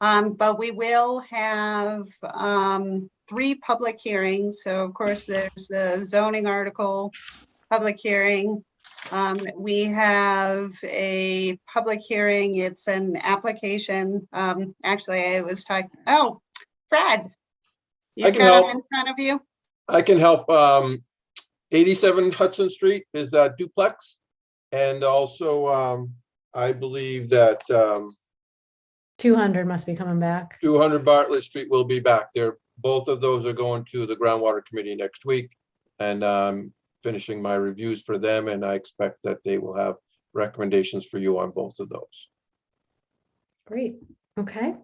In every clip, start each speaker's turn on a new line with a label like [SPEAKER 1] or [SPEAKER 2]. [SPEAKER 1] Um, but we will have, um, three public hearings. So of course, there's the zoning article, public hearing. Um, we have a public hearing. It's an application. Um, actually, I was talking, oh, Fred.
[SPEAKER 2] I
[SPEAKER 1] You
[SPEAKER 2] can
[SPEAKER 1] got
[SPEAKER 2] help.
[SPEAKER 1] him in front of you?
[SPEAKER 2] I can help. Um, eighty-seven Hudson Street is uh, duplex. And also, um, I believe that, um,
[SPEAKER 3] 200 must be coming back.
[SPEAKER 2] two hundred Bartlett Street will be back there. Both of those are going to the groundwater committee next week. And, um, finishing my reviews for them and I expect that they will have recommendations for you on both of those.
[SPEAKER 3] Great, okay.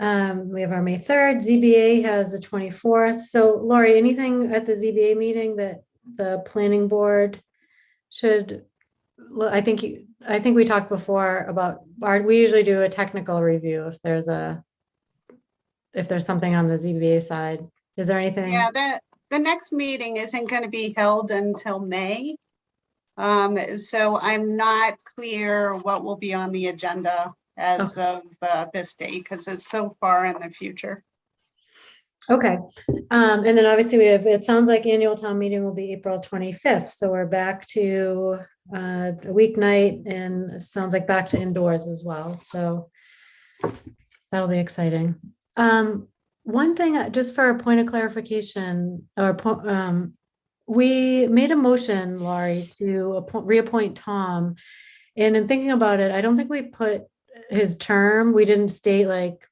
[SPEAKER 3] Um, we have our May 3rd, ZBA has the 24th. So Lori, anything at the ZBA meeting that the planning board should, well, I think, you. I think we talked before about, our- we usually do a technical review if there's a, if there's something on the ZBA side. Is there anything?
[SPEAKER 1] Yeah, the, the next meeting isn't going to be held until May. Um, so I'm not clear what will be on the agenda as of uh, this day because it's so far in the future.
[SPEAKER 3] Okay, um, and then obviously we have, it sounds like annual town meeting will be April twenty-fifth, so we're back to uh, a weeknight and it sounds like back to indoors as well, so that'll be exciting. Um, one thing, uh, just for a point of clarification, or, po- um, we made a motion, Laurie, to appoint, reappoint Tom. And in thinking about it, I don't think we put his term, we didn't state like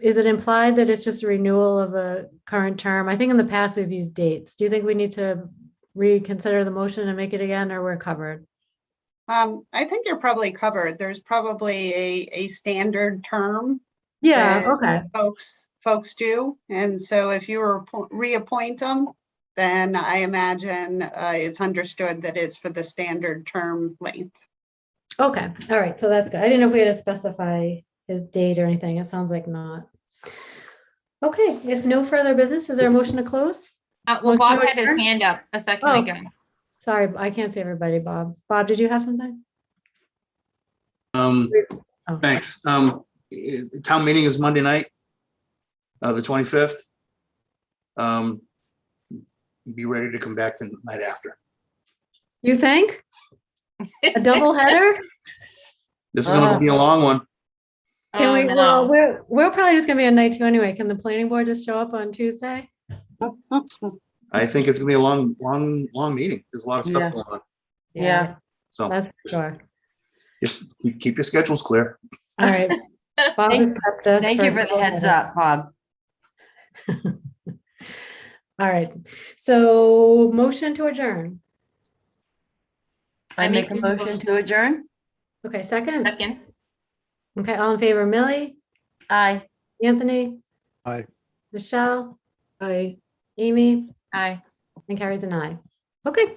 [SPEAKER 3] is it implied that it's just a renewal of a current term? I think in the past we've used dates. Do you think we need to reconsider the motion and make it again, or we're covered?
[SPEAKER 1] Um, I think you're probably covered. There's probably a, a standard term
[SPEAKER 3] Yeah,
[SPEAKER 1] Uh,
[SPEAKER 3] okay,
[SPEAKER 1] folks, folks do. And so if you were appo- reappoint them, then I imagine uh, it's understood that it's for the standard term length.
[SPEAKER 3] okay, all right, so that's good. I didn't know if we had to specify his date or anything. It sounds like not. Okay, if no further business, is there a motion to close?
[SPEAKER 4] Uh, well,
[SPEAKER 3] Motion
[SPEAKER 4] Bob
[SPEAKER 3] to
[SPEAKER 4] had his
[SPEAKER 3] adjourn?
[SPEAKER 4] hand up a second
[SPEAKER 3] Oh.
[SPEAKER 4] ago.
[SPEAKER 3] Sorry, I can't see everybody, Bob. Bob, did you have something?
[SPEAKER 5] Um,
[SPEAKER 3] Oh.
[SPEAKER 5] thanks. Um, eh, town meeting is Monday night, uh, the twenty-fifth. Um, be ready to come back the night after.
[SPEAKER 3] You think? A double header?
[SPEAKER 5] This is
[SPEAKER 3] Ah.
[SPEAKER 5] gonna be a long one.
[SPEAKER 3] Can
[SPEAKER 4] Oh,
[SPEAKER 3] we,
[SPEAKER 4] no.
[SPEAKER 3] well, we're, we're probably just gonna be on night two anyway. Can the planning board just show up on Tuesday?
[SPEAKER 5] I think it's gonna be a long, long, long meeting. There's a lot of stuff
[SPEAKER 6] Yeah.
[SPEAKER 5] going on.
[SPEAKER 6] Yeah.
[SPEAKER 5] So
[SPEAKER 3] That's for sure.
[SPEAKER 5] just keep, keep your schedules clear.
[SPEAKER 3] All right. Bob
[SPEAKER 4] Thank-
[SPEAKER 3] has prepped us
[SPEAKER 6] Thank you for the
[SPEAKER 3] another
[SPEAKER 6] heads
[SPEAKER 3] minute.
[SPEAKER 6] up, Bob.
[SPEAKER 3] All right. So motion to adjourn.
[SPEAKER 6] I make a
[SPEAKER 4] Making
[SPEAKER 6] motion
[SPEAKER 4] motion.
[SPEAKER 6] to adjourn.
[SPEAKER 3] Okay, second.
[SPEAKER 4] Second.
[SPEAKER 3] Okay, all in favor, Millie,
[SPEAKER 6] Aye.
[SPEAKER 3] Anthony?
[SPEAKER 2] Aye.
[SPEAKER 3] Michelle,
[SPEAKER 6] Aye.
[SPEAKER 3] Amy,
[SPEAKER 4] Aye.
[SPEAKER 3] and Carrie's an aye. Okay.